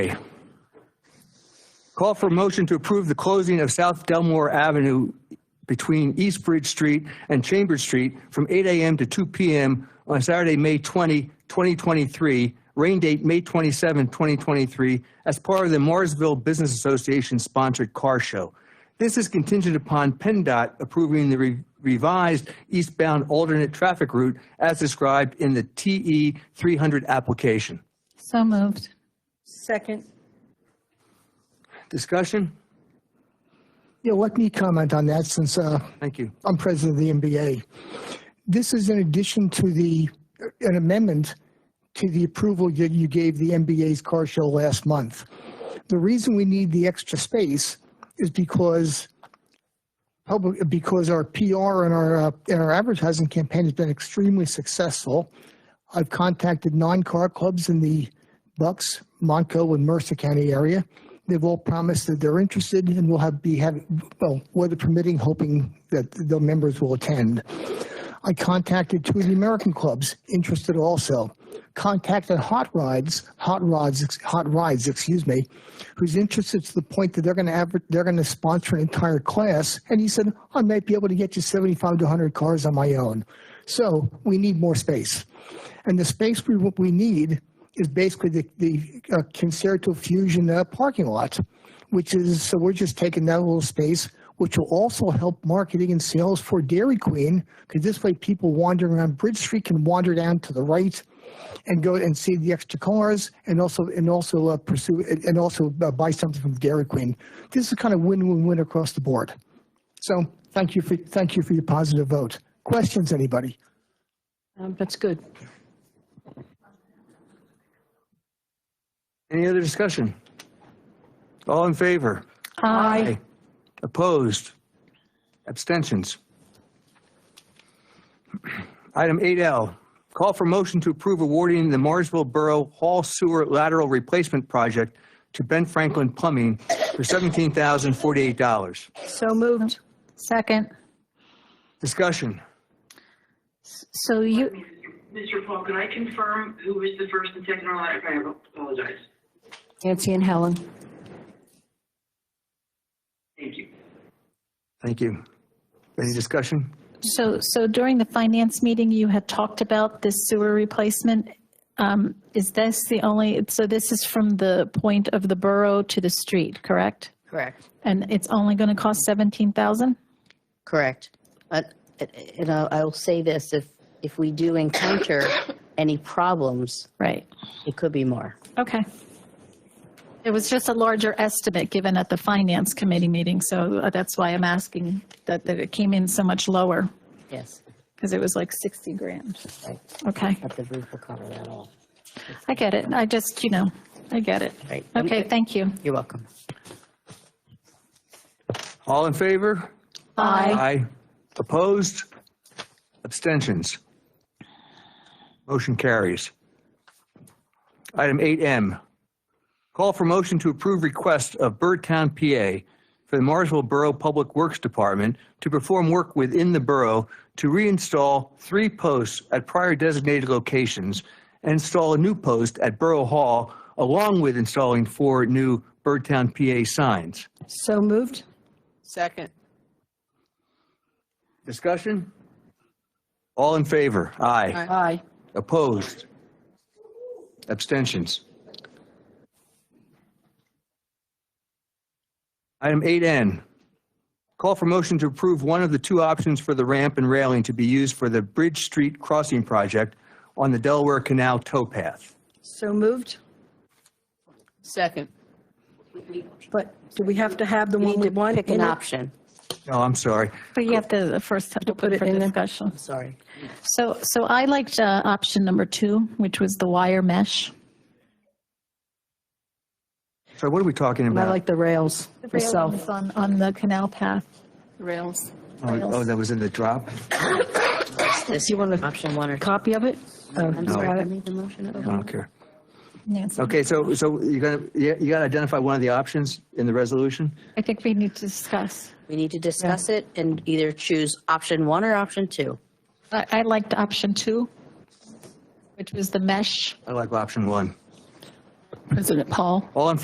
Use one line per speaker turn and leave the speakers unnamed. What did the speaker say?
A. Call for motion to approve the closing of South Delmore Avenue between East Bridge Street and Chambers Street from 8 AM to 2 PM on Saturday, May 20, 2023, rain date May 27, 2023, as part of the Morrisville Business Association sponsored car show. This is contingent upon PennDOT approving the re- revised eastbound alternate traffic route as described in the TE 300 application.
So moved.
Second.
Discussion?
Yeah, let me comment on that since uh,
Thank you.
I'm president of the NBA. This is in addition to the, uh, an amendment to the approval that you gave the NBA's car show last month. The reason we need the extra space is because public, because our PR and our, uh, and our advertising campaign has been extremely successful. I've contacted nine car clubs in the Bucks, Monco, and Mercer County area. They've all promised that they're interested and will have, be having, well, weather permitting, hoping that the members will attend. I contacted two of the American clubs interested also. Contacted Hot Rides, Hot Rods, ex- Hot Rides, excuse me, who's interested to the point that they're going to adver- they're going to sponsor an entire class. And he said, I might be able to get you 75 to 100 cars on my own. So we need more space. And the space we, we need is basically the, the uh, Concerto Fusion uh, parking lot, which is, so we're just taking that little space, which will also help marketing and sales for Dairy Queen, because this way people wandering around Bridge Street can wander down to the right and go and see the extra cars and also, and also uh, pursue, and and also uh, buy something from Dairy Queen. This is kind of win-win-win across the board. So thank you for, thank you for your positive vote. Questions, anybody?
Um, That's good.
Any other discussion? All in favor?
Aye.
Opposed? Abstentions? Item 8L, call for motion to approve awarding the Morrisville Borough Hall Sewer Lateral Replacement Project to Ben Franklin Plumbing for $17,048.
So moved.
Second.
Discussion?
So you,
Mr. Paul, could I confirm who was the first and second on that? I apologize.
Nancy and Helen.
Thank you.
Thank you. Any discussion?
so, so during the finance meeting, you had talked about this sewer replacement. Um, Is this the only, so this is from the point of the borough to the street, correct?
Correct,
And it's only going to cost 17,000?
correct. Uh, And I'll I'll say this, if, if we do encounter any problems,
Right.
it could be more.
Okay. It was just a larger estimate given at the finance committee meeting, so that's why I'm asking that, that it came in so much lower,
Yes,
because it was like 60 grand.
right.
Okay,
but the roof will cover that all.
I get it. I just, you know, I get it.
Right.
Okay, thank you.
You're welcome.
All in favor?
Aye.
Aye. Opposed? Abstentions? Motion carries. Item 8M, call for motion to approve request of Birdtown, PA for the Marsville Borough Public Works Department to perform work within the borough to reinstall three posts at prior designated locations and install a new post at Borough Hall, along with installing four new Birdtown, PA signs.
So moved.
Second.
Discussion? All in favor? Aye.
Aye.
Opposed? Abstentions? Item 8N, call for motion to approve one of the two options for the ramp and railing to be used for the Bridge Street Crossing Project on the Delaware Canal towpath.
So moved.
Second.
But do we have to have the
We
one
need
we
to
want?
pick an
in it?
option,
No, Oh, I'm sorry.
But you have to first have to put
it
it for
in there.
discussion.
sorry.
So, so I liked uh, option number two, which was the wire mesh.
So what are we talking
I
about?
like the rails myself.
On, on the canal path.
Rails.
Oh, oh, that was in the drop?
This
you wanna-
option one or two.
Copy of it? Oh,
I'm
you
sorry,
got
I
it.
made the motion.
I don't care.
Nancy.
Okay, so, so you're gonna, you you gotta identify one of the options in the resolution?
I think we need to discuss.
We need to discuss it and either choose option one or option two.
I, I liked option two, which was the mesh.
I like option one.
President Paul.
All in